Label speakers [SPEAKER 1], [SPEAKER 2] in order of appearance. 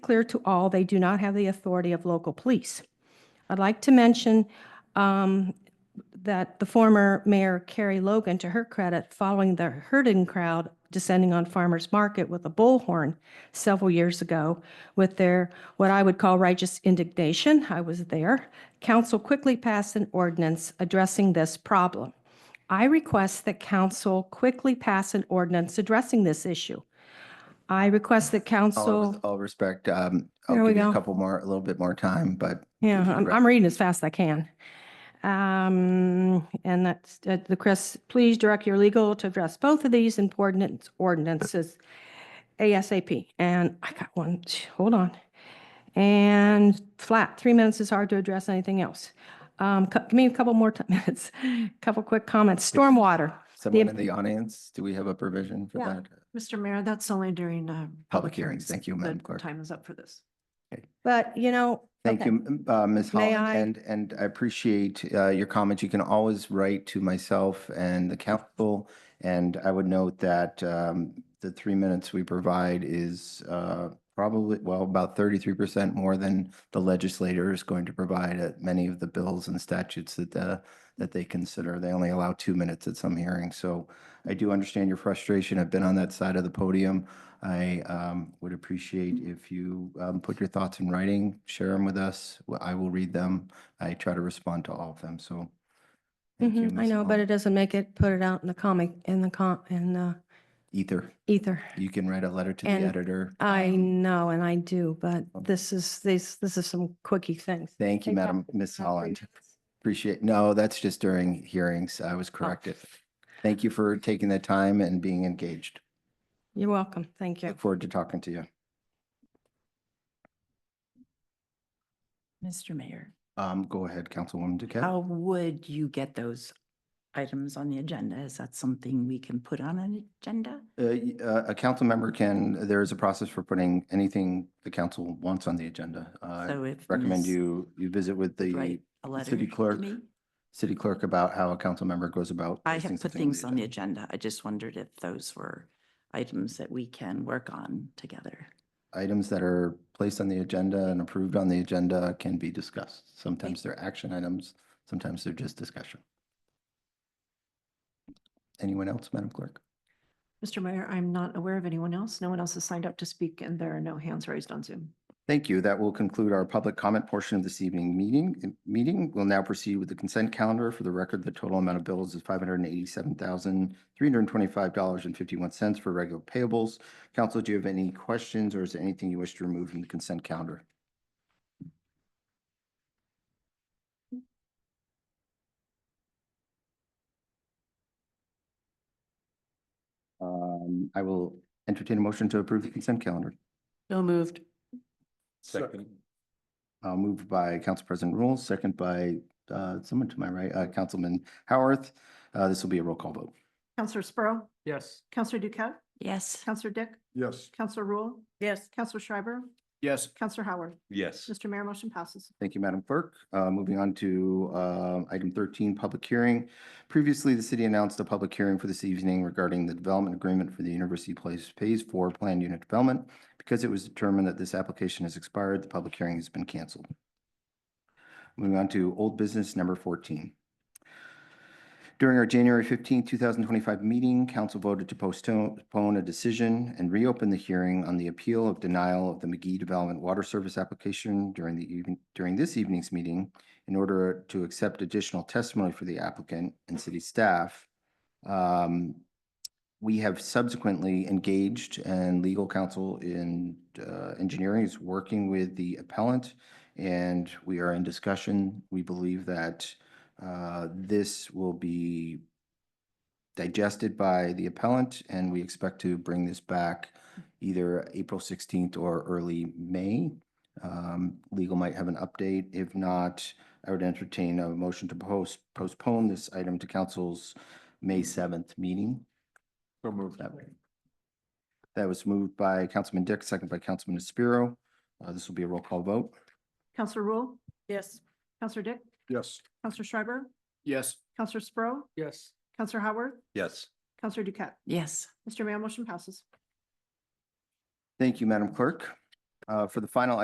[SPEAKER 1] clear to all, they do not have the authority of local police. I'd like to mention um, that the former mayor Carrie Logan, to her credit, following the herding crowd descending on farmers market with a bullhorn several years ago with their, what I would call righteous indignation, I was there, council quickly passed an ordinance addressing this problem. I request that council quickly pass an ordinance addressing this issue. I request that
[SPEAKER 2] All
[SPEAKER 1] council.
[SPEAKER 2] with all respect, um, I'll
[SPEAKER 1] There we
[SPEAKER 2] give you
[SPEAKER 1] go.
[SPEAKER 2] a couple more, a little bit more time, but
[SPEAKER 1] Yeah, I'm,
[SPEAKER 2] Right.
[SPEAKER 1] I'm reading as fast as I can. Um, and that's, uh, the Chris, please direct your legal to address both of these important ordinances ASAP. And I got one, t- hold on. And flat, three minutes is hard to address anything else. Um, cou- give me a couple more ti- minutes, couple quick comments. Stormwater.
[SPEAKER 2] someone in the audience, do we have a provision for
[SPEAKER 3] Yeah.
[SPEAKER 2] that?
[SPEAKER 3] Mr. Mayor, that's only during, uh.
[SPEAKER 2] Public hearings. Thank you, Madam
[SPEAKER 3] The
[SPEAKER 2] Clerk.
[SPEAKER 3] Time is up for this.
[SPEAKER 1] But, you know.
[SPEAKER 2] Thank
[SPEAKER 1] okay.
[SPEAKER 2] you, m- uh, Ms.
[SPEAKER 1] May
[SPEAKER 2] Holland,
[SPEAKER 1] I-
[SPEAKER 2] and, and I appreciate, uh, your comments. You can always write to myself and the council. And I would note that, um, the three minutes we provide is, uh, probably, well, about thirty-three percent more than the legislator is going to provide at many of the bills and statutes that, uh, that they consider. They only allow two minutes at some hearings. So I do understand your frustration. I've been on that side of the podium. I um, would appreciate if you um, put your thoughts in writing, share them with us. Well, I will read them. I try to respond to all of them, so. thank you,
[SPEAKER 1] Mhm, I
[SPEAKER 2] Ms.
[SPEAKER 1] know, but
[SPEAKER 2] Holland.
[SPEAKER 1] it doesn't make it, put it out in the comic, in the com, in the
[SPEAKER 2] Ether,
[SPEAKER 1] ether.
[SPEAKER 2] you can write a letter to the
[SPEAKER 1] And
[SPEAKER 2] editor.
[SPEAKER 1] I know, and I do, but
[SPEAKER 2] Oh.
[SPEAKER 1] this is, this, this is some quickie things.
[SPEAKER 2] Thank you,
[SPEAKER 1] Take that
[SPEAKER 2] Madam, Ms.
[SPEAKER 1] Uh,
[SPEAKER 2] Holland. Appreciate, no, that's just during hearings. I
[SPEAKER 1] Oh.
[SPEAKER 2] was corrected. Thank you for taking the time and being engaged.
[SPEAKER 1] You're welcome. Thank you.
[SPEAKER 2] Look forward to talking to you.
[SPEAKER 4] Mr. Mayor,
[SPEAKER 2] Um, Go ahead, Councilwoman Duquette.
[SPEAKER 4] how would you get those items on the agenda? Is that something we can put on an agenda?
[SPEAKER 2] Uh, y- uh, A council member can, there is a process for putting anything the council wants on the agenda. Uh,
[SPEAKER 4] So if
[SPEAKER 2] recommend
[SPEAKER 4] Ms.
[SPEAKER 2] you, you visit with
[SPEAKER 4] could
[SPEAKER 2] the
[SPEAKER 4] Write a letter.
[SPEAKER 2] city
[SPEAKER 4] to
[SPEAKER 2] clerk.
[SPEAKER 4] me?
[SPEAKER 2] city clerk about how a council member goes about.
[SPEAKER 4] I
[SPEAKER 2] placing
[SPEAKER 4] have put
[SPEAKER 2] something
[SPEAKER 4] things on the agenda. I just wondered if those were items that we can work on together.
[SPEAKER 2] Items that are placed on the agenda and approved on the agenda can be discussed. Sometimes they're action items, sometimes they're just discussion. Anyone else, Madam Clerk?
[SPEAKER 3] Mr. Mayor, I'm not aware of anyone else. No one else has signed up to speak and there are no hands raised on Zoom.
[SPEAKER 2] Thank you. That will conclude our public comment portion of this evening meeting. Meeting will now proceed with the consent calendar. For the record, the total amount of bills is five hundred and eighty-seven thousand, three hundred and twenty-five dollars and fifty-one cents for regular payables. Council, do you have any questions or is there anything you wish to remove from the consent calendar? Um, I will entertain a motion to approve the consent calendar.
[SPEAKER 4] No moved.
[SPEAKER 2] Second. Uh, moved by Council President Rule, second by, uh, someone to my right, uh, Councilman Howarth. Uh, this will be a roll call vote.
[SPEAKER 3] Counselor Sprow,
[SPEAKER 5] Yes.
[SPEAKER 3] Counselor Duquette,
[SPEAKER 4] Yes.
[SPEAKER 3] Counselor Dick,
[SPEAKER 5] Yes.
[SPEAKER 3] Counselor Rule,
[SPEAKER 4] Yes.
[SPEAKER 3] Counselor Schreiber,
[SPEAKER 5] Yes.
[SPEAKER 3] Counselor Howard.
[SPEAKER 5] Yes.
[SPEAKER 3] Mr. Mayor, motion passes.
[SPEAKER 2] Thank you, Madam Clerk. Uh, Moving on to uh, item 13, public hearing. Previously, the city announced a public hearing for this evening regarding the development agreement for the University Place Phase 4 Planned Unit Development. Because it was determined that this application has expired, the public hearing has been canceled. Moving on to old business number 14. During our January 15, 2025 meeting, council voted to postone postpone a decision and reopen the hearing on the appeal of denial of the McGee Development Water Service application during the even, during this evening's meeting in order to accept additional testimony for the applicant and city staff. Um, We have subsequently engaged and legal counsel in uh, engineering is working with the appellant and we are in discussion. We believe that uh, This will be digested by the appellant, and we expect to bring this back either April 16th or early May. Um, Legal might have an update. If not, I would entertain a motion to post postpone this item to council's May 7th meeting.
[SPEAKER 5] So moved.
[SPEAKER 2] That way. That was moved by Councilman Dick, second by Councilman Spiro. Uh, This will be a roll call vote.
[SPEAKER 3] Counselor Rule,
[SPEAKER 4] Yes.
[SPEAKER 3] Counselor Dick,
[SPEAKER 5] Yes.
[SPEAKER 3] Counselor Schreiber,
[SPEAKER 5] Yes.
[SPEAKER 3] Counselor Sprow,
[SPEAKER 5] Yes.
[SPEAKER 3] Counselor Howard,
[SPEAKER 5] Yes.
[SPEAKER 3] Counselor Duquette.
[SPEAKER 4] Yes.
[SPEAKER 3] Mr. Mayor, motion passes.
[SPEAKER 2] Thank you, Madam Clerk. Uh, Uh, For the final